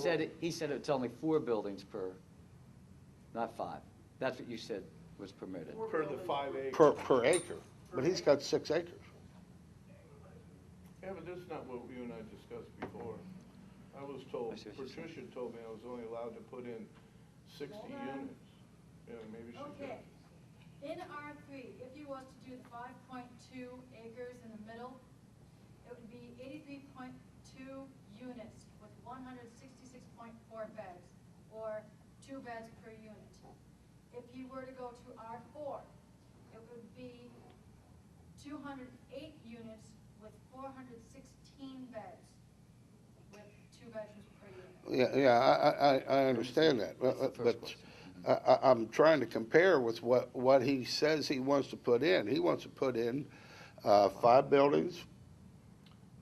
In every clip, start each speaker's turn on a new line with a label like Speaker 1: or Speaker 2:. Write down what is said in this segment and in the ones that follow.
Speaker 1: said, it- he said it's only four buildings per, not five. That's what you said was permitted.
Speaker 2: Per the five acre.
Speaker 3: per, per acre, but he's got six acres.
Speaker 2: Yeah, but that's not what you and I discussed before. I was told,
Speaker 1: I see what you're saying.
Speaker 2: Patricia told me I was only allowed to put in sixty
Speaker 4: Hold on.
Speaker 2: units. Yeah, maybe she did.
Speaker 4: Okay, in R three, if you was to do the five point two acres in the middle, it would be eighty-three point two units with one hundred sixty-six point four beds, or two beds per unit. If you were to go to R four, it would be two hundred eight units with four hundred sixteen beds, with two bedrooms per unit.
Speaker 3: Yeah, yeah, I, I, I- I understand that,
Speaker 1: That's the
Speaker 3: but,
Speaker 1: first
Speaker 3: but
Speaker 1: question.
Speaker 3: I, I, I'm trying to compare with what, what he says he wants to put in. He wants to put in, uh, five buildings,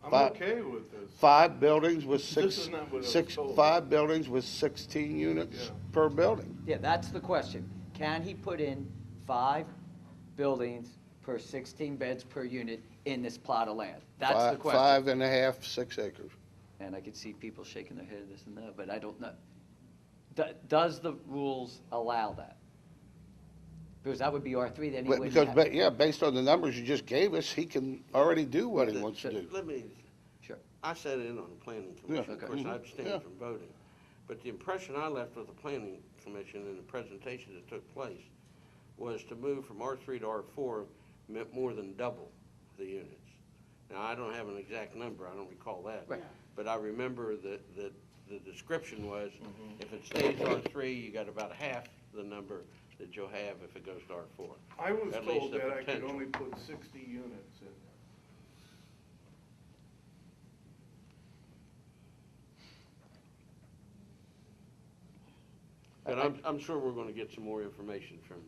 Speaker 2: I'm
Speaker 3: Five-
Speaker 2: okay with this.
Speaker 3: five buildings with
Speaker 2: This
Speaker 3: six,
Speaker 2: is not what I was
Speaker 3: six,
Speaker 2: told.
Speaker 3: five buildings with sixteen units
Speaker 2: Yeah.
Speaker 3: per building.
Speaker 1: Yeah, that's the question. Can he put in five buildings per 16 beds per unit in this plot of land? That's the
Speaker 3: Fi- Five
Speaker 1: question.
Speaker 3: and a half, six acres.
Speaker 1: And I could see people shaking their head, this and that, but I don't know. Do- Does the rules allow that? Because that would be R3, then he
Speaker 3: But
Speaker 1: wouldn't
Speaker 3: Because,
Speaker 1: have.
Speaker 3: ba- yeah, based on the numbers you just gave us, he can already do what he wants to do.
Speaker 5: Let me,
Speaker 1: Sure.
Speaker 5: I sat in on the planning commission, of
Speaker 1: Okay.
Speaker 5: course, I
Speaker 3: Mhm. Yeah.
Speaker 5: abstained from voting. But the impression I left with the planning commission and the presentation that took place was to move from R three to R four meant more than double the units. Now, I don't have an exact number, I don't recall that.
Speaker 1: Right.
Speaker 5: But I remember that, that the description was,
Speaker 3: Mm-hmm.
Speaker 5: if it stays R three, you got about half the number that you'll have if it goes to R four.
Speaker 2: I was
Speaker 5: At least
Speaker 2: told
Speaker 5: the
Speaker 2: that I could
Speaker 5: potential.
Speaker 2: only put sixty units in there.
Speaker 5: But I'm, I'm sure we're gonna get some more information from,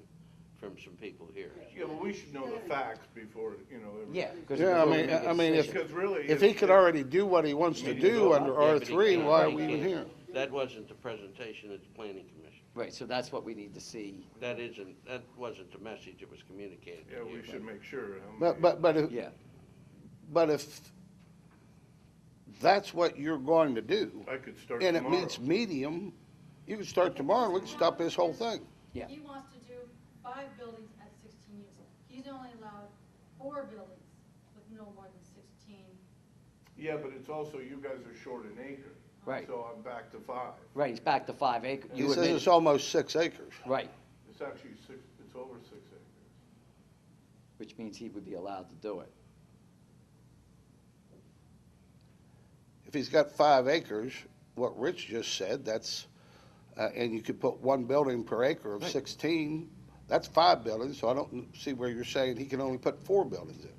Speaker 5: from some people here.
Speaker 2: Yeah, but we should know the facts before, you know. everything.
Speaker 1: Yeah. 'cause
Speaker 3: Yeah,
Speaker 1: before
Speaker 3: I
Speaker 1: we
Speaker 3: mean,
Speaker 1: make a
Speaker 3: I mean, if,
Speaker 1: decision.
Speaker 2: Because really,
Speaker 3: if
Speaker 2: if-
Speaker 3: he could already do what he wants to do under
Speaker 5: Yeah,
Speaker 3: R
Speaker 5: but he
Speaker 3: three,
Speaker 5: can't.
Speaker 3: why are
Speaker 5: He
Speaker 3: we even
Speaker 5: can't.
Speaker 3: here?
Speaker 5: That wasn't the presentation at the planning commission.
Speaker 1: Right, so that's what we need to see.
Speaker 5: That isn't, that wasn't the message that was communicated
Speaker 2: Yeah,
Speaker 5: to
Speaker 2: we
Speaker 5: you.
Speaker 2: should make sure. how
Speaker 3: But,
Speaker 2: many-
Speaker 3: but, but if,
Speaker 1: Yeah,
Speaker 3: but if that's what you're going to do,
Speaker 2: I could start
Speaker 3: and it
Speaker 2: tomorrow.
Speaker 3: meets medium, you can start tomorrow, and we can stop this whole thing.
Speaker 1: Yeah.
Speaker 4: He wants to do five buildings at sixteen units. He's only allowed four buildings with no more than sixteen.
Speaker 2: Yeah, but it's also, you guys are short an acre.
Speaker 1: Right.
Speaker 2: So I'm back to five.
Speaker 1: right, he's back to five acre.
Speaker 3: He
Speaker 1: You
Speaker 3: says
Speaker 1: admitted,
Speaker 3: it's almost six acres.
Speaker 1: right,
Speaker 2: It's actually six, it's over six acres.
Speaker 1: which means he would be allowed to do it.
Speaker 3: If he's got five acres, what Rich just said, that's, uh, and you could put one building per acre of sixteen, that's five buildings, so I don't see where you're saying he can only put four buildings in.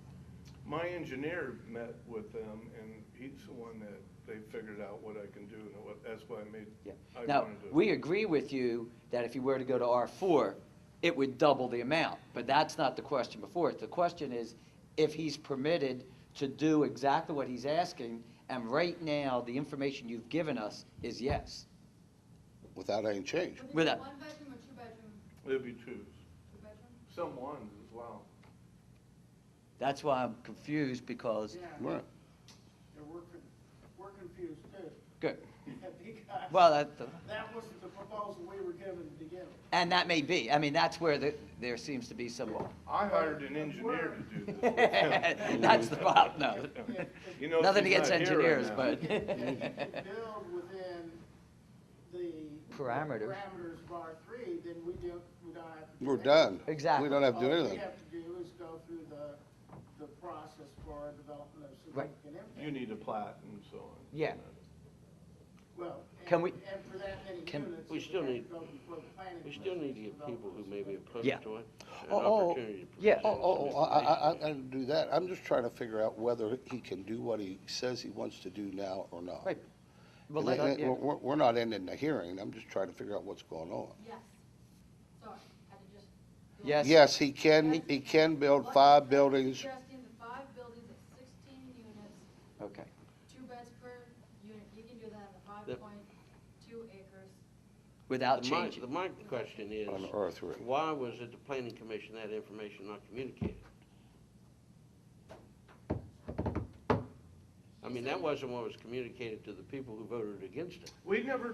Speaker 2: My engineer met with them, and he's the one that they figured out what I can do, and what, that's why I made,
Speaker 1: Yeah.
Speaker 2: I
Speaker 1: Now,
Speaker 2: wanted to.
Speaker 1: we agree with you that if you were to go to R4, it would double the amount, but that's not the question before it. The question is if he's permitted to do exactly what he's asking, and right now, the information you've given us is yes.
Speaker 3: Without any change.
Speaker 4: Would it
Speaker 1: Without-
Speaker 4: be one bedroom or two bedroom,
Speaker 2: It'd be twos,
Speaker 4: two bedroom?
Speaker 2: some ones as well.
Speaker 1: That's why I'm confused, because,
Speaker 6: Yeah,
Speaker 3: Right.
Speaker 6: yeah, we're, con- we're confused too.
Speaker 1: good,
Speaker 6: Because
Speaker 1: well, that,
Speaker 6: that wasn't the proposal we were given to begin with.
Speaker 1: and that may be, I mean, that's where the, there seems to be some,
Speaker 2: I hired an engineer to do this.
Speaker 1: that's the problem,
Speaker 3: Oh.
Speaker 1: no.
Speaker 2: You know,
Speaker 1: Nothing
Speaker 2: he's
Speaker 1: against
Speaker 2: not here right
Speaker 1: engineers,
Speaker 2: now.
Speaker 1: but.
Speaker 6: If you could build within the.
Speaker 1: Parameters.
Speaker 6: Parameters of R three, then we don't, we don't have to. do
Speaker 3: We're
Speaker 6: that.
Speaker 3: done.
Speaker 1: Exactly.
Speaker 3: We don't have to do
Speaker 6: All
Speaker 3: anything.
Speaker 6: we have to do is go through the, the process for our development of
Speaker 1: Right.
Speaker 6: significant impact.
Speaker 2: You need a plat and so on.
Speaker 1: Yeah.
Speaker 6: Well, and-
Speaker 1: Can we-
Speaker 6: And for that many
Speaker 1: can-
Speaker 6: units.
Speaker 5: We
Speaker 6: it would
Speaker 5: still
Speaker 6: have to
Speaker 5: need-
Speaker 6: go before the planning
Speaker 5: We still need to
Speaker 6: commission
Speaker 5: give
Speaker 6: develop
Speaker 5: people who
Speaker 6: those
Speaker 5: may be opposed
Speaker 1: Yeah.
Speaker 5: to it an
Speaker 3: Oh, oh,
Speaker 5: opportunity to present
Speaker 1: yeah.
Speaker 3: Oh, oh,
Speaker 5: some
Speaker 3: oh, I, I, I
Speaker 5: information.
Speaker 3: I didn't do that. I'm just trying to figure out whether he can do what he says he wants to do now or not.
Speaker 1: Right. Well,
Speaker 3: And
Speaker 1: let-
Speaker 3: that-
Speaker 1: yeah.
Speaker 3: We're, we're- we're not ending the hearing. I'm just trying to figure out what's going on.
Speaker 4: Yes, sorry, had to just. go
Speaker 1: Yes.
Speaker 4: on.
Speaker 3: Yes, he can, he can build five buildings.
Speaker 4: Suggesting the five buildings at sixteen units,
Speaker 1: Okay,
Speaker 4: two beds per unit, you can do that in the five
Speaker 5: The-
Speaker 4: point two acres.
Speaker 1: without
Speaker 5: The mi-
Speaker 1: changing.
Speaker 5: The, my question is,
Speaker 3: On R3.
Speaker 5: why was at the planning commission that information not communicated? I I mean, that wasn't what was communicated to the people who voted against it.
Speaker 2: We never